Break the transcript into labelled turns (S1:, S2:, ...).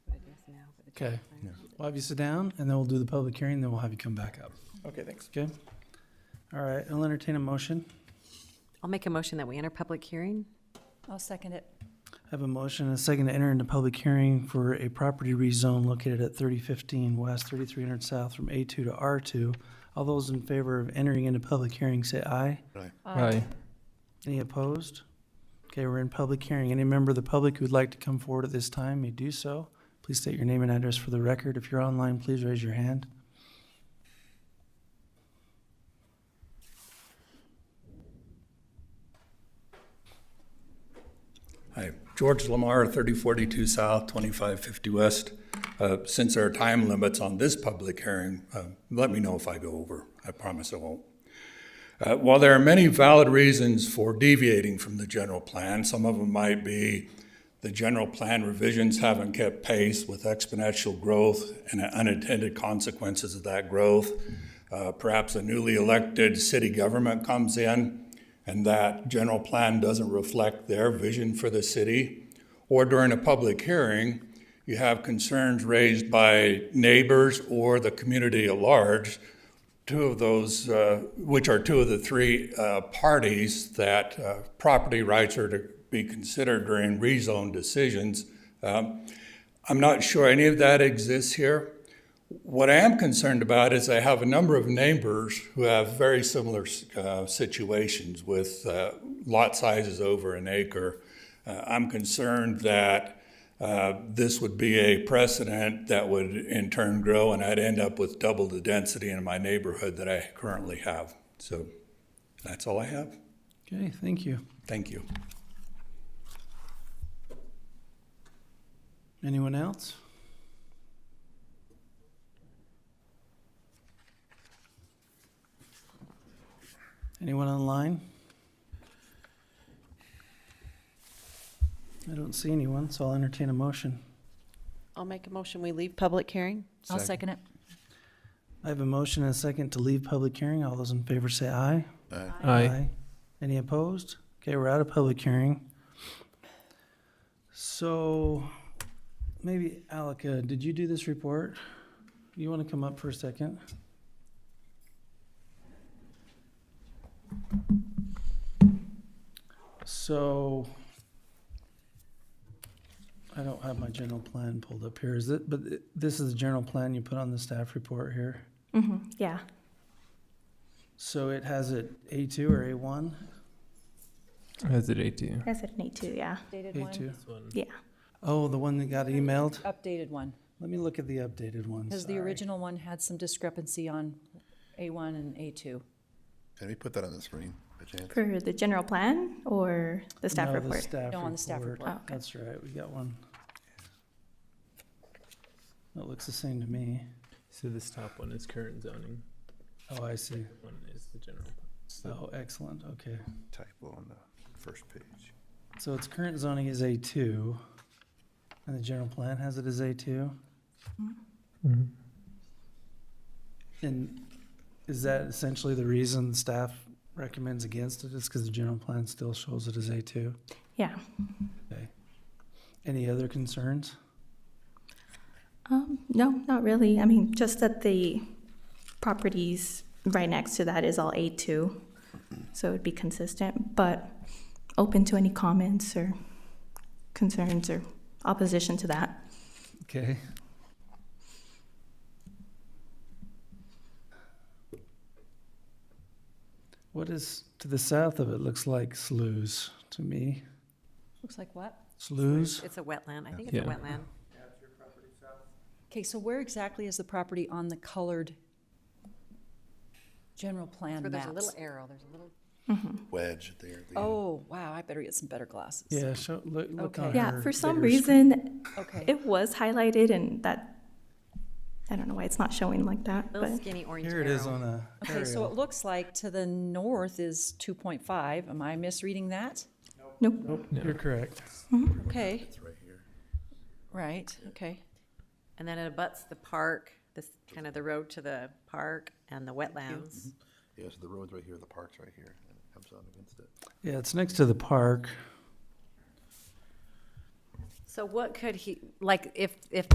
S1: Okay. We'll have you sit down, and then we'll do the public hearing, then we'll have you come back up.
S2: Okay, thanks.
S1: Okay? All right, I'll entertain a motion.
S3: I'll make a motion that we enter public hearing.
S4: I'll second it.
S1: I have a motion and a second to enter into public hearing for a property rezone located at 3015 West, 3300 South from A2 to R2. All those in favor of entering into public hearing, say aye.
S5: Aye.
S1: Any opposed? Okay, we're in public hearing. Any member of the public who'd like to come forward at this time may do so. Please state your name and address for the record. If you're online, please raise your hand.
S6: Hi, George Lamar, 3042 South, 2550 West. Uh, Since there are time limits on this public hearing, uh, let me know if I go over. I promise I won't. Uh, While there are many valid reasons for deviating from the general plan, some of them might be the general plan revisions haven't kept pace with exponential growth and unintended consequences of that growth. Uh, Perhaps a newly elected city government comes in and that general plan doesn't reflect their vision for the city. Or during a public hearing, you have concerns raised by neighbors or the community at large two of those, uh, which are two of the three uh, parties that uh, property rights are to be considered during rezone decisions. Um, I'm not sure any of that exists here. What I am concerned about is I have a number of neighbors who have very similar uh, situations with uh, lot sizes over an acre. Uh, I'm concerned that uh, this would be a precedent that would in turn grow, and I'd end up with double the density in my neighborhood that I currently have. So that's all I have.
S1: Okay, thank you.
S6: Thank you.
S1: Anyone else? Anyone online? I don't see anyone, so I'll entertain a motion.
S7: I'll make a motion, we leave public hearing.
S4: I'll second it.
S1: I have a motion and a second to leave public hearing. All those in favor say aye.
S2: Uh,
S5: Aye.
S1: Any opposed? Okay, we're out of public hearing. So maybe Alaka, did you do this report? You want to come up for a second? So I don't have my general plan pulled up here. Is it, but it- this is the general plan you put on the staff report here?
S8: Yeah.
S1: So it has it A2 or A1?
S5: Hesitate to.
S8: I said need to, yeah.
S4: Updated
S1: A2.
S8: Yeah.
S1: Oh, the one that got emailed?
S4: Updated one,
S1: Let me look at the updated one.
S4: because the
S1: sorry.
S4: original one had some discrepancy on A1 and A2.
S2: Can we put that on the screen, by chance?
S8: For the general plan or the staff
S1: No, the
S8: report?
S1: staff
S4: No, on the staff report.
S8: Oh, okay.
S1: That's right, we got one. That looks the same to me.
S5: So this top one is current zoning.
S1: Oh, I see.
S5: One is the general.
S1: Oh, excellent, okay.
S2: Typo on the first page.
S1: So its current zoning is A2, and the general plan has it as A2?
S4: Mm-hmm.
S1: And is that essentially the reason staff recommends against it, is because the general plan still shows it as A2?
S8: Yeah.
S1: Okay. Any other concerns?
S8: Um, no, not really. I mean, just that the properties right next to that is all A2, so it would be consistent, but open to any comments or concerns or opposition to that.
S1: Okay. What is to the south of it looks like sloughs to me.
S4: Looks like what?
S1: Sloughs?
S3: It's a wetland. I think it's a
S5: Yeah.
S3: wetland.
S4: Okay, so where exactly is the property on the colored general plan
S3: Where there's a little
S4: maps?
S3: arrow, there's a little.
S2: Wedge there. the-
S4: Oh, wow, I better get some better glasses.
S1: Yeah, show, look, look
S4: Okay.
S1: on
S8: Yeah,
S1: her
S8: for some
S1: bigger screen.
S8: reason,
S4: Okay,
S8: it was highlighted and that, I don't know why it's not showing like that, but.
S3: Little skinny orange
S1: Here it is
S3: arrow.
S1: on a
S4: okay, so it
S1: aerial.
S4: looks like to the north is 2.5. Am I misreading that?
S8: Nope.
S1: You're correct.
S4: Okay. Right, okay.
S3: And then it abuts the park, this, kind of the road to the park and the wetlands.
S7: Mm-hmm.
S2: Yeah, so the road's right here, the park's right here, and it comes out against it.
S1: Yeah, it's next to the park.
S3: So what could he, like, if, if